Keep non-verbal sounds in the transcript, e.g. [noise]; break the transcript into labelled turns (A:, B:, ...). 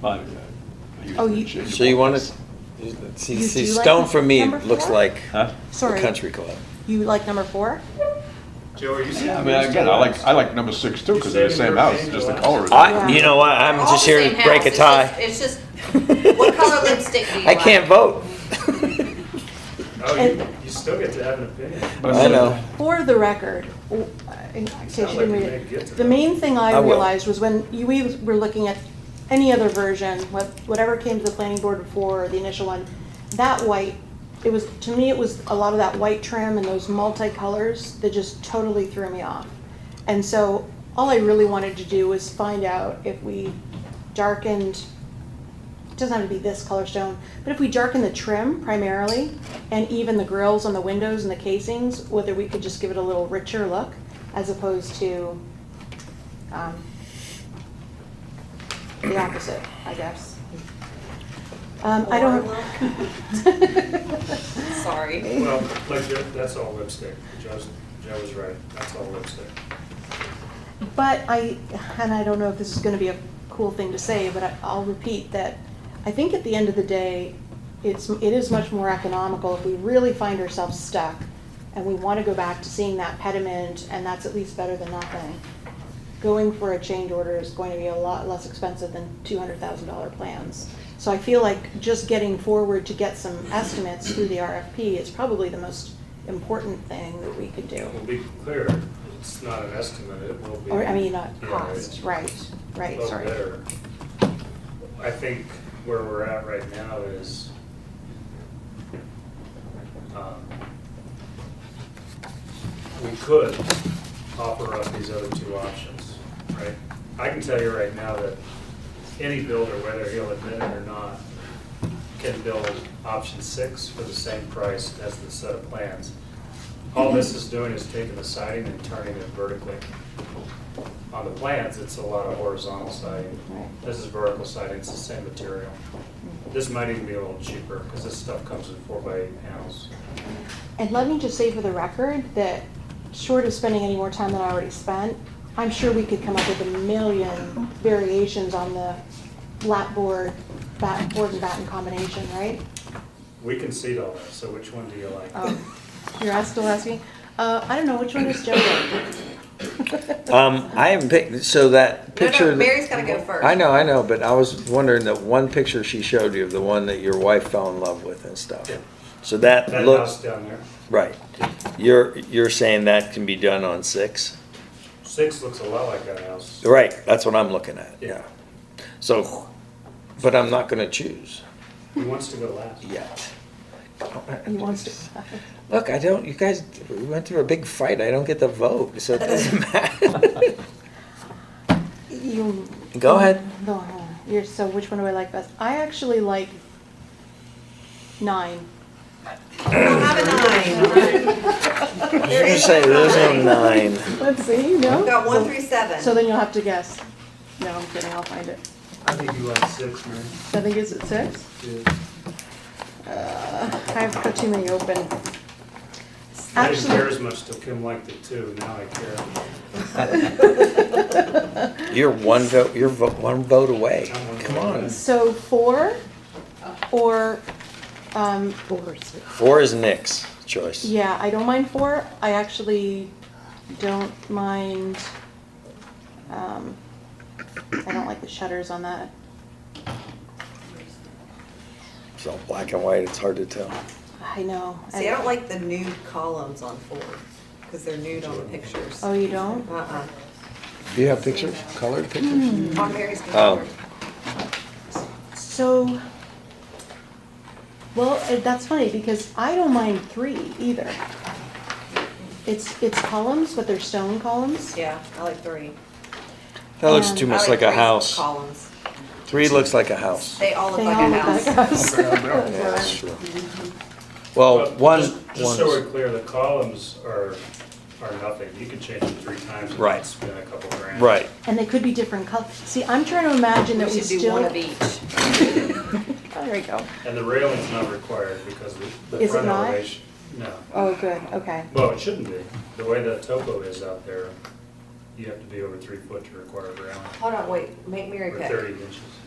A: But he was
B: Oh,
A: in
B: you-
A: shape.
C: So you want to, see,
B: You
C: see,
B: do like
C: Stone for me
B: number
C: looks
B: four?
C: like
A: Huh?
C: the
B: Sorry.
C: country club.
B: You like number four?
D: Joe, are you saying?
A: Yeah, I mean, again, I like, I like number six too, because they're the same house, just the color is.
C: I, you know what, I'm
E: All
C: just
E: the
C: here
E: same
C: to break a
E: house,
C: tie.
E: It's just, it's just what color lipstick do you
C: [laughs] I
E: like?
C: can't
E: [laughs]
C: vote.
D: Oh, you, you still get to have an opinion.
A: But
C: I
A: mean,
C: know.
B: For the record, w- in case you
D: Sounds
B: didn't
D: like
B: read
D: we may get to
B: it, the
D: that.
B: main thing I
C: I will.
B: realized was when you- we were looking at any other version, what- whatever came to the planning board before, the initial one, that white, it was, to me, it was a lot of that white trim and those multicolors that just totally threw me off. And so all I really wanted to do was find out if we darkened it doesn't have to be this color stone, but if we darken the trim primarily and even the grills on the windows and the casings, whether we could just give it a little richer look as opposed to um, the opposite, I guess. Um, I don't.
E: Sorry.
D: Well, like, Joe- that's all lipstick. Joe's, Joe was right. That's all lipstick.
B: But I, and I don't know if this is gonna be a cool thing to say, but I- I'll repeat that I think at the end of the day, it's, it is much more economical if we really find ourselves stuck and we wanna go back to seeing that pediment and that's at least better than nothing. Going for a change order is going to be a lot less expensive than two hundred thousand dollar plans. So I feel like just getting forward to get some estimates through the RFP is probably the most important thing that we could do.
D: We'll be clear, it's not an estimate. It will be.
B: Or, I mean, not
D: Yeah,
B: cost,
D: it's
B: right, right,
D: a
B: sorry.
D: better. I think where we're at right now is, um, we could offer up these other two options, right? I can tell you right now that any builder, whether he'll admit it or not, can build option six for the same price as the set of plans. All this is doing is taking the siding and turning it vertically. On the plans, it's a lot of horizontal siding.
B: Right.
D: This is vertical siding, it's the same material. This might even be a little cheaper, because this stuff comes in four by eight panels.
B: And let me just say for the record that short of spending any more time than I already spent, I'm sure we could come up with a million variations on the lap board, bat, board and batten combination, right?
D: We concede all that, so which one do you like? [laughs]
B: Um, You're asked, still asking, uh, I don't know, which one is Joe? [laughs]
C: Um, I haven't picked, so that
E: No,
C: picture.
E: no, Mary's gotta go first.
C: I know, I know, but I was wondering that one picture she showed you of the one that your wife fell in love with and stuff.
D: Yeah.
C: So that
D: That uh, house
C: looks,
D: down there,
C: right. You're, you're saying that can be done on six?
D: six looks a lot like that house.
C: Right, that's what I'm looking at,
D: Yeah.
C: yeah. So, but I'm not gonna choose
D: He wants to go last.
C: yet.
B: He wants to.
C: [laughs] Look, I don't, you guys, we went through a big fight, I don't get the vote, so
B: [laughs]
C: it doesn't matter.
B: You.
C: Go ahead.
B: No, no, you're, so which one do I like best? I actually like nine.
E: Have a nine. There
C: You
E: is
C: say
E: no
C: there's no
E: nine.
C: nine.
B: Let's see, no?
E: We've got
B: So-
E: one through seven.
B: So then you'll have to guess. No, I'm kidding, I'll find it.
D: I think you like six, man.
B: I think it's at six. Uh, I've got too many open.
D: I didn't care
B: Actually,
D: as much till Kim liked it too, now I care.
C: You're one vote, you're vo- one vote away.
D: I'm one
C: Come
D: vote away.
B: [laughs]
C: on.
B: so four or, um. Four.
C: Four is Nick's choice.
B: Yeah, I don't mind four. I actually don't mind, um, I don't like the shutters on that.
C: So black and white, it's hard to tell.
B: I know.
E: See, I don't like the nude columns on four, because they're nude on the pictures.
B: Oh, you don't?
E: Uh-uh.
C: Do you have pictures,
B: Hmm.
C: colored pictures?
E: On Mary's
C: Oh.
E: computer.
B: So, well, uh, that's funny because I don't mind three either. It's, it's columns, but they're stone columns.
E: Yeah, I like three.
C: That looks too
E: I
C: much like a
E: three's
C: house.
E: Columns.
C: Three looks like a house.
E: They all look
B: They
E: like
B: all
E: a
B: look like
E: house.
B: a house.
C: Yeah, that's true. Well,
D: But
C: Oh, one,
D: just- Just so we're
C: one's-
D: clear, the columns are, are nothing, you can change them three times and
C: Right.
D: not spend a couple grand.
C: right.
B: [laughs] And they could be different colors. See, I'm trying to imagine that we
E: We should
B: still.
E: do one of each.
B: Oh, There we go.
D: And the railing's not required because the the
B: Is it
D: front
B: not?
D: elevation. No,
B: Oh, good, okay.
D: well, it shouldn't be, the way the topo is out there, you have to be over three foot to require a railing,
E: Hold on, wait, make Mary
D: or
E: pick.
D: thirty inches.